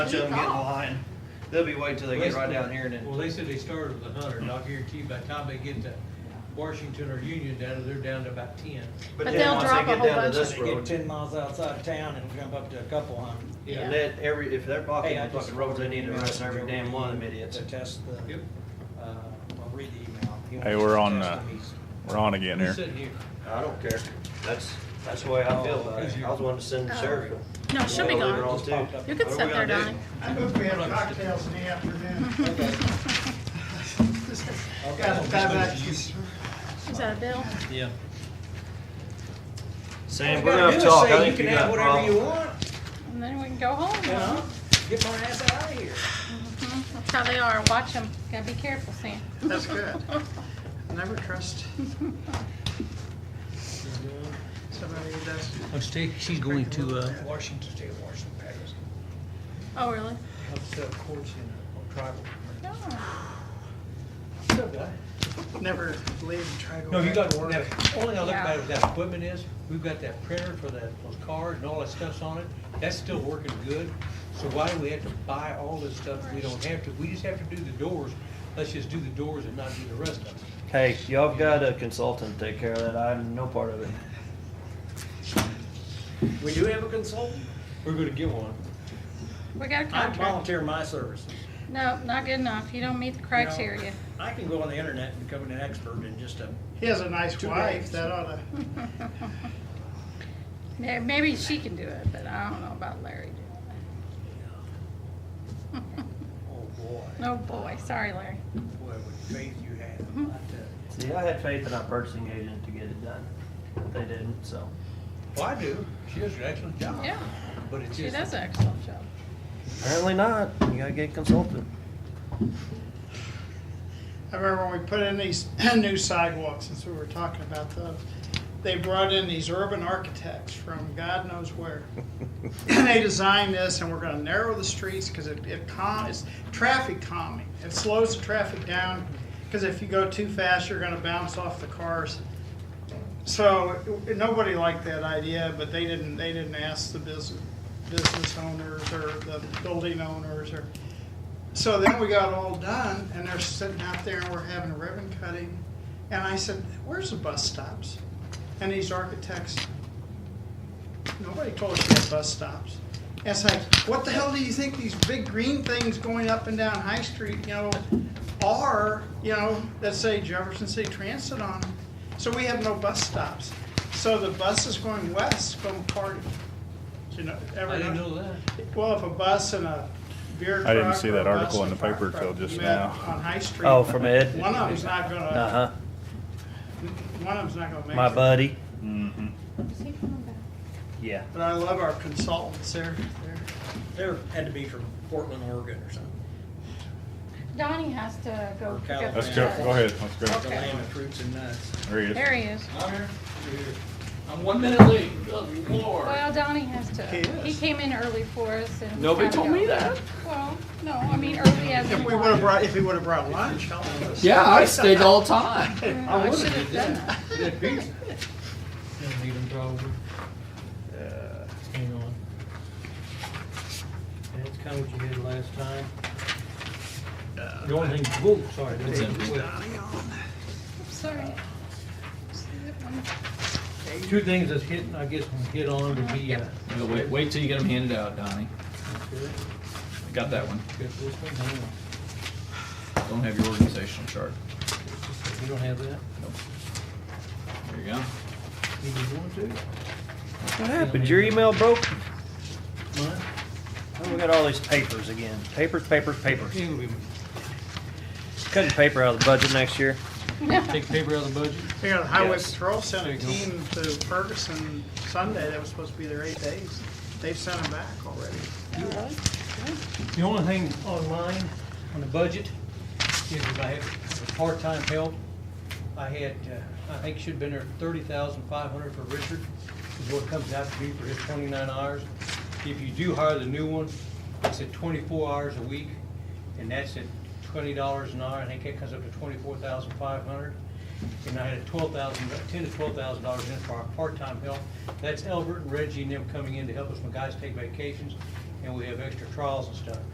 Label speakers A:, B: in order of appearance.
A: Bunch of them get in line. They'll be waiting till they get right down here and then.
B: Well, they said they started with a hundred, and I guarantee you by the time they get to Washington or Union down, they're down to about ten.
A: But
C: But
A: then
C: they'll
A: once they
C: drop a
A: get
C: whole
A: down to
C: bunch
A: this
C: of-
D: They get
A: road,
D: ten miles outside of town and jump up to a couple hundred.
C: Yeah.
A: let every, if they're blocking
D: Hey, I
A: the
D: just
A: fucking roads, they need to
D: forwarded
A: arrest
D: an
A: every
D: email
A: damn one of them
D: to
A: idiots.
D: To test the,
B: Yep.
D: uh, well, read the email. He
E: Hey,
D: wants
E: we're
D: to
E: on,
D: test
E: uh,
D: them. He's-
E: We're on again
B: He's
E: here.
B: sitting here.
A: I don't care. That's, that's the way I feel about it. I was wanting to send the sheriff.
C: No, Oh. she'll be
A: Leave her
C: gone.
A: on too.
D: You
C: You
A: What
C: can
A: are we
C: sit there,
A: gonna do?
C: Donnie.
F: I hope we have cocktails in the afternoon. Got
D: Okay.
F: five actions.
C: Is that a bill?
B: Yeah.
A: Sam,
D: All
A: we're
D: you
A: gonna
D: gotta do is
A: talk.
D: say
A: I think
D: You
A: you
D: can have
A: got Uh-huh.
D: whatever you
A: problems.
D: want,
C: And then we can go home.
D: you know? Get my ass out of here.
C: Mhm. That's how they are. Watch them. Gotta be careful, Sam.
F: That's good. Never trust somebody who does.
B: Oh, she's going to, uh,
D: Washington State, Washington, Patterson.
C: Oh, really?
D: Helps set up courts in a tribal.
C: No.
D: So, what?
F: Never leave and try to go.
B: No, you
F: back
B: got,
F: to work.
B: now, only I look
C: Yeah.
B: about with that equipment is, we've got that printer for that, those cards and all that stuff's on it, that's still working good. So why do we have to buy all this stuff that we don't have to? We just have to do the doors, let's just do the doors and not do the rest of it.
A: Hey, y'all got a consultant to take care of that. I'm no part of it.
D: We do have a consultant?
B: We're gonna get one.
C: We got a
D: I
C: contract.
D: volunteer my services.
C: No, not good enough. You don't meet the
D: You know,
C: criteria.
D: I can go on the internet and become an expert in just a,
F: He has a nice
D: Two
F: wife,
D: days.
F: that oughta,
C: Yeah, Maybe she can do it, but I don't know about Larry doing it.
D: oh boy,
C: No boy. Sorry, Larry.
D: boy, what faith you have, I tell you.
A: See, I had faith in our purchasing agent to get it done. but They didn't, so.
B: Well, I do, she does an excellent job.
C: Yeah,
B: But it's
C: she
B: just,
C: does an excellent job.
A: Apparently not. You gotta get a consultant.
F: I remember when we put in these new sidewalks, since we were talking about those, they brought in these urban architects from God knows where. And they designed this, and we're gonna narrow the streets, because it, it calm, it's traffic calming. It slows the traffic down, because if you go too fast, you're gonna bounce off the cars. So, it- nobody liked that idea, but they didn't, they didn't ask the business, business owners or the building owners or so then we got all done, and they're sitting out there, and we're having a ribbon cutting. And I said, Where's the bus stops? And these architects, nobody told us we had bus stops. And it's like, What the hell do you think these big green things going up and down High Street, you know, are, you know, that say Jefferson City Transit on them? So we have no bus stops. So the bus is going west from Cardiff. You know,
B: I
F: every
B: didn't know that.
F: well, if a bus and a beer
E: I didn't
F: truck
E: see
F: or
E: that
F: a bus
E: article
F: and
E: in the
F: a
E: paper
F: fire
E: till
F: truck
E: just
F: met
E: now.
F: On High Street.
A: Oh, from Ed?
F: One of them's not gonna,
A: Uh-huh.
F: one of them's not gonna make it.
A: My buddy.
E: Mm-hmm.
C: Is he coming back?
A: Yeah.
F: But I love our consultants there.
D: there had to be from Portland, Oregon or something.
C: Donnie has to go pick up.
E: Let's
C: the
E: go,
C: stuff.
E: go ahead, let's go.
D: The
C: Okay.
D: land of fruits and nuts.
E: There he is.
C: There he is.
G: I'm here. I'm one minute late, good lord.
C: Well, Donnie has to.
F: He is.
C: He came in early for us and.
G: Nobody
C: had to
G: told
C: go.
G: me that.
C: Well, no, I mean early as.
F: If
C: in
F: we would've
C: morning.
F: brought, if he would've brought lunch, I'll have
G: Yeah, I stayed the whole time.
C: Yeah, I should have done that.
B: That pizza. Don't need them probably. Hang on. That's kind of what you did last time. The only thing, whoa, sorry. the only thing-
C: Sorry.
B: Two things that's hitting, I guess, we'll hit on would be, uh, got
G: Wait, wait till you get them handed out, Donnie. Got that one.
B: this one, hang on.
G: Don't have your organizational chart.
B: You don't have that?
G: There you go.
B: You just want to?
A: What happened? Your email broke?
B: Mine?
A: Oh, we got all these papers again. Papers, papers, papers.
B: Yeah, we
A: Cutting paper out of the budget next year.
B: Take paper out of the budget?
F: We got a highway
A: Yes.
F: patrol sent a
B: There you
F: team to Ferguson Sunday, that was supposed to be there eight days. They've sent them back already.
B: The only thing on mine, on the budget, is if I have part-time help, I had, uh, I think should have been there thirty thousand five hundred for Richard, is what it comes out to be for his twenty-nine hours. If you do hire the new one, it's at twenty-four hours a week, and that's at twenty dollars an hour, I think that comes up to twenty-four thousand five hundred. And I had a twelve thousand, ten to twelve thousand dollars in for our part-time help. That's Albert and Reggie and them coming in to help us when guys take vacations. and we have extra trials and stuff.